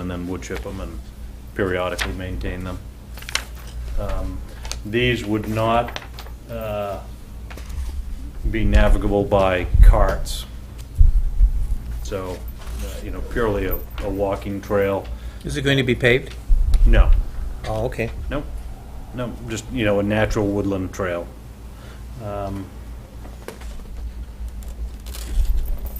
and then wood chip them and periodically maintain them. Um, These would not uh, be navigable by carts. So, uh, you know, purely a, a walking trail, Is it going to be paved? no, Oh, okay. no, no, just, you know, a natural woodland trail. Um,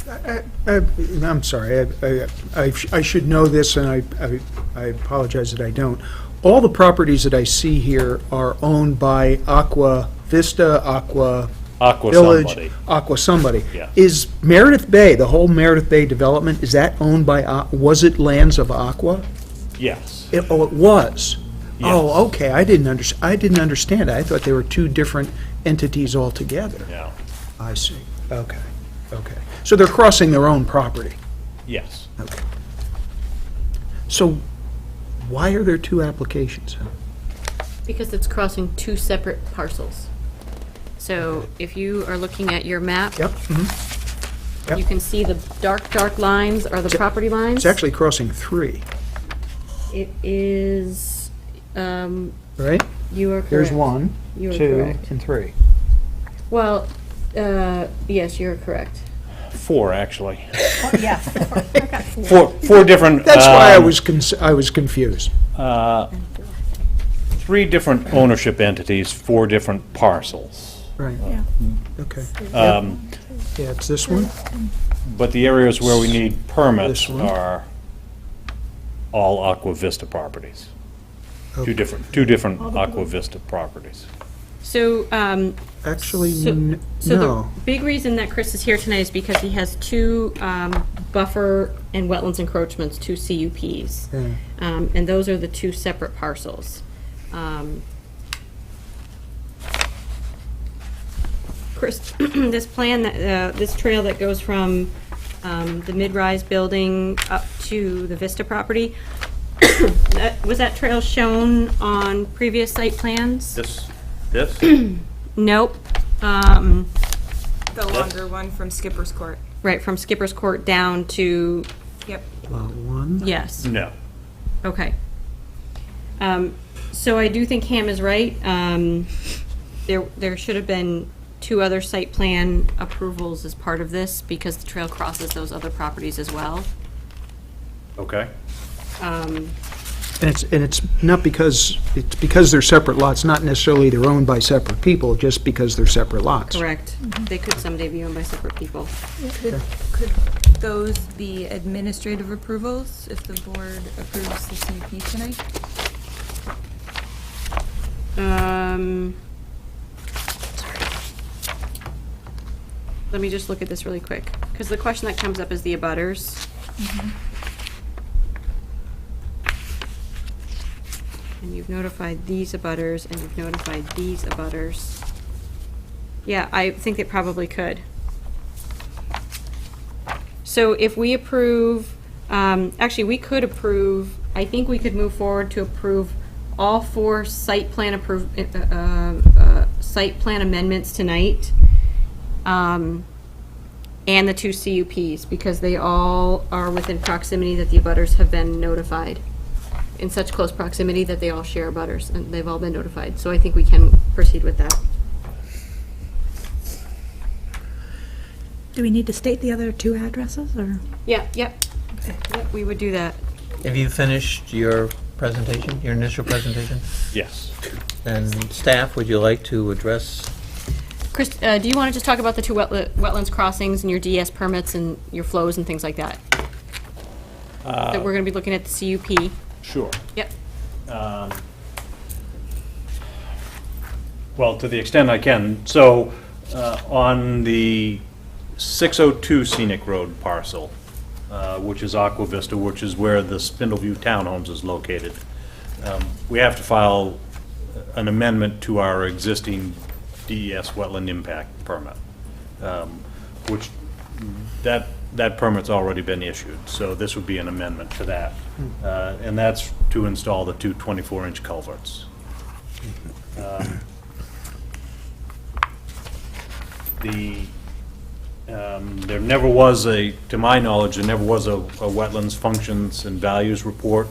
I- I- Uh, I'm sorry, I- I- I sh- I should know this, and I- I I apologize that I don't. All the properties that I see here are owned by Aqua Vista, Aqua Aqua Village, somebody. Aqua somebody. Yeah. Is Meredith Bay, the whole Meredith Bay development, is that owned by, Aqu- was it lands of Aqua? Yes. It- Oh, it was? Yes. Oh, okay, I didn't under, I didn't understand. I thought they were two different entities altogether. Yeah, I see, okay, okay. So they're crossing their own property? yes. Okay. So why are there two applications? Because it's crossing two separate parcels. So if you are looking at your map, Yep, mhm. yep. you can see the dark, dark lines are the property lines. it's actually crossing three, It is, um, right? you are correct. There's one, You are two, correct. and three. Well, uh, yes, you're correct. Four, actually. Yeah. Four, four different. That's why I um, was, cons- I was confused. Uh, Three different ownership entities, four different parcels. Right, Yeah. okay. Um, Yeah, it's this one? But the areas where we need permits This one? are all Aqua Vista properties. Two Okay. different, two different Aqua Vista properties. So, um, Actually, So- n- So the no. big reason that Chris is here tonight is because he has two um, buffer and wetlands encroachments, two CUPs. Yeah. Um, And those are the two separate parcels. Um, Chris, this plan, that uh, this trail that goes from um, the mid-rise building up to the Vista property, that- was that trail shown on previous site plans? This, this? Nope. Um, The longer one from Skipper's Court. Right, from Skipper's Court down to, Yep. Lot one, yes, No. okay. Um, So I do think Ham is right. Um, There, there should have been two other site plan approvals as part of this because the trail crosses those other properties as well. Um, Okay. and it's, and it's not because, it's because they're separate lots, not necessarily they're owned by separate people, just because they're separate lots. Correct. They could someday be owned by separate people. Could could those be administrative approvals if the board approves the CUP tonight? Um, Let me just look at this really quick, because the question that comes up is the abutters. And you've notified these abutters, and you've notified these abutters. Yeah, I think it probably could. So if we approve, um, actually, we could approve, I think we could move forward to approve all four site plan approve, uh, uh, uh, site plan amendments tonight. um, And the two CUPs, because they all are within proximity that the abutters have been notified. In such close proximity that they all share abutters, and they've all been notified. So I think we can proceed with that. Do we need to state the other two addresses, or? Yeah, yep. Yep, We would do that. Have you finished your presentation, your initial presentation? Yes. And staff, would you like to address? Chris, uh, do you want to just talk about the two wetla- wetlands crossings and your DS permits and your flows and things like that? That we're going to be looking at the CUP. Sure. Yep, Well, to the extent I can. So, uh, on the 602 Scenic Road parcel, uh, which is Aqua Vista, which is where the Spindleview Townhomes is located, um, we have to file an amendment to our existing DES wetland impact permit, um, which, that, that permit's already been issued, so this would be an amendment to that. Uh, And that's to install the two 24-inch culverts. The Um, There never was a, to my knowledge, there never was a a wetlands functions and values report